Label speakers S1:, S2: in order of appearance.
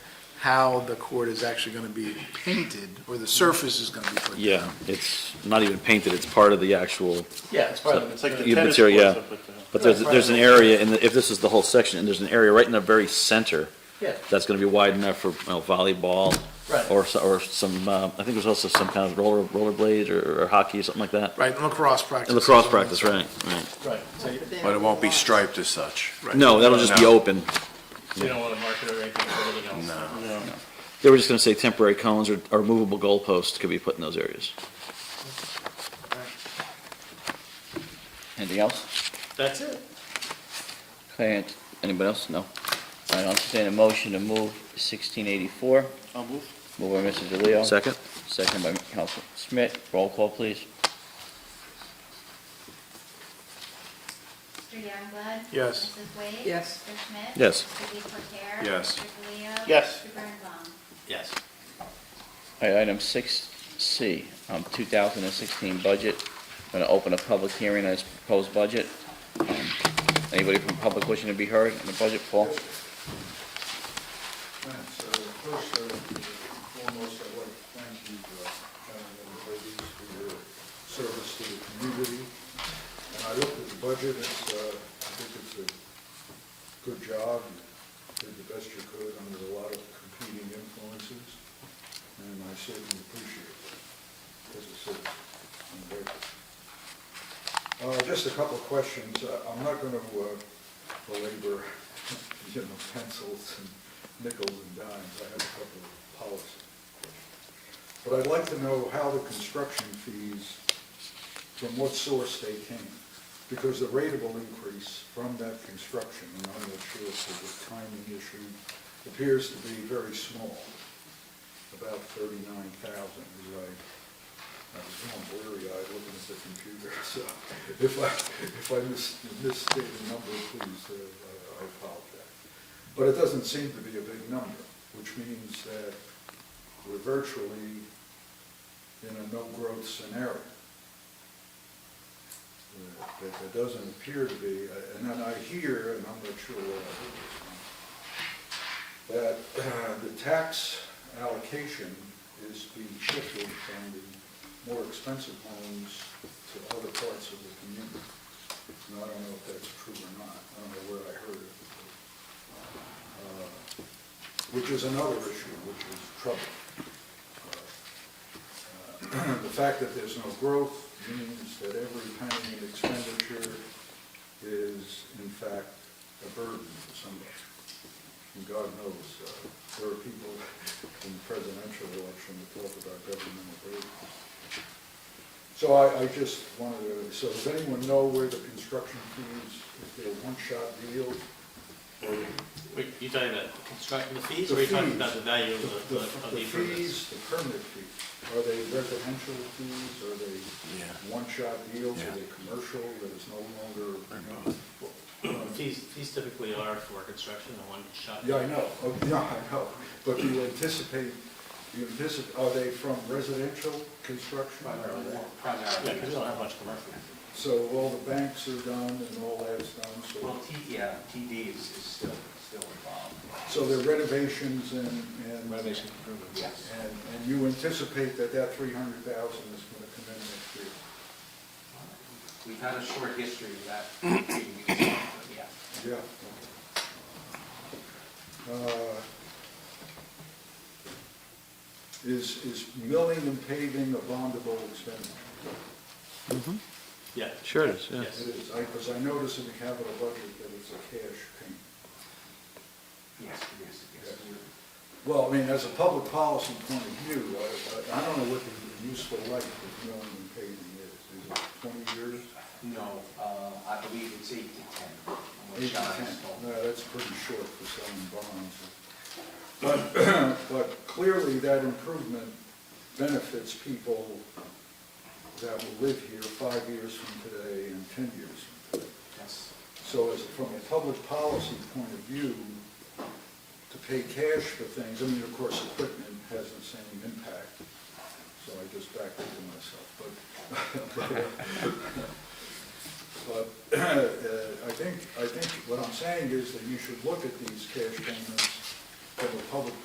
S1: how the court is actually going to be painted, or the surface is going to be put down.
S2: Yeah, it's not even painted, it's part of the actual,
S1: Yeah, it's
S2: part of it.
S3: It's like the
S2: Yeah,
S3: tennis
S2: material,
S3: courts
S2: yeah.
S3: up at the.
S2: but there's, there's an area, and if this is the whole section, and there's an area right in the very center
S1: Yeah,
S2: that's gonna be wide enough for, you know, volleyball, or, so- or some, uh, I think there's also some kind of roller, rollerblade or or hockey or something like that.
S1: Right, and lacrosse practice.
S2: And lacrosse practice, right, right.
S1: Right, so you
S4: But it won't be striped as such.
S2: No, that'll just be
S4: No.
S2: open.
S5: You don't want to market it or anything for anything else.
S4: No.
S2: They were just gonna say temporary cones or, or movable goalposts could be put in those areas.
S6: Anything else?
S5: That's it.
S6: Okay, and- anybody else? No. All right, I'll entertain a motion to move 1684.
S3: I'll move.
S6: Moved by Mr. DeLeo.
S2: Second?
S6: Second by Council Smith. Roll call, please.
S7: Mr. Youngblood?
S1: Yes.
S7: Mrs. Wade?
S8: Yes.
S7: Mr. Schmidt?
S2: Yes.
S7: Mr. DeCotere?
S4: Yes.
S7: Mr. DeLeo?
S3: Yes.
S7: Mr. Birnbaum?
S5: Yes.
S6: All right, item 6C, um, 2016 budget. I'm Going to open a public hearing on this proposed budget. Um, Anybody from public wishing to be heard on the budget, Paul?
S9: comments. So first, uh, foremost, I'd like to thank you, uh, gentlemen and ladies, for your service to the community. And I looked at the budget, it's, uh, I think it's a good job, you did the best you could under a lot of competing influences, and I certainly appreciate that, as a citizen. I'm grateful. Uh, Just a couple of questions. Uh, I'm not going to belabor, you know, pencils and nickels and dimes. I have a couple of policy questions. But I'd like to know how the construction fees, from what source they came. Because the rateable increase from that construction, and I'm not sure if it was timing issue, appears to be very small, about 39,000, as I I was going blurry-eyed looking at the computer, so if I, if I mis- misstate a number, please, uh, I I apologize. But it doesn't seem to be a big number, which means that we're virtually in a no-growth scenario. Uh, That there doesn't appear to be, uh, and then I hear, and I'm not sure where I heard this from, that uh, the tax allocation is being shifted from the more expensive homes to other parts of the community. And I don't know if that's true or not, I don't know where I heard it. Uh, Which is another issue, which is trouble. Uh, The fact that there's no growth means that every penny in expenditure is in fact a burden for somebody. And God knows, uh, there are people in the presidential election that talk about governmental burdens. So I, I just wanted to, so does anyone know where the construction fees, if they're one-shot deal? or
S5: Wait, you talking about constructing the fees,
S9: The
S5: or you talking about
S9: fees.
S5: the value of the, of
S9: The
S5: the improvements?
S9: fees, the permit fees, are they residential fees, are they one-shot deals, are they commercial, that is no longer, you know,
S5: Fees, fees typically are for construction, a one-shot.
S9: Yeah, I know, Oh, yeah, I know, but do you anticipate, do you anticipate, are they from residential construction?
S5: Yeah, because we don't have much commercial.
S9: So all the banks are done and all that's done, so,
S10: Well, T, yeah, TD is, is still, still involved.
S9: so they're renovations and, and.
S5: Renovation improvements.
S10: Yes.
S9: And, and you anticipate that that three hundred thousand is gonna come in next year?
S10: We've had a short history of that, being used, but yeah.
S9: Yeah. Uh, Is, is milling and paving a bondable expenditure?
S5: Yeah.
S2: Sure it is, yeah.
S5: Yes.
S9: It is, because I notice in the capital budget that it's a cash thing.
S10: Yes, it is, yes, it is.
S9: Well, I mean, as a public policy point of view, I- I, I don't know what the useful life of milling and paving is. Is it twenty years?
S10: No, uh, I believe it's eight to ten. from what
S9: Eight to
S10: John
S9: ten?
S10: has told me.
S9: No, that's pretty short for selling bonds. But, but clearly that improvement benefits people that will live here five years from today and ten years from today.
S10: Yes.
S9: So as, from a public policy point of view, to pay cash for things, I mean, of course, equipment has the same impact, so I just backed it to myself, but, but, uh, I think, I think what I'm saying is that you should look at these cash payments from a public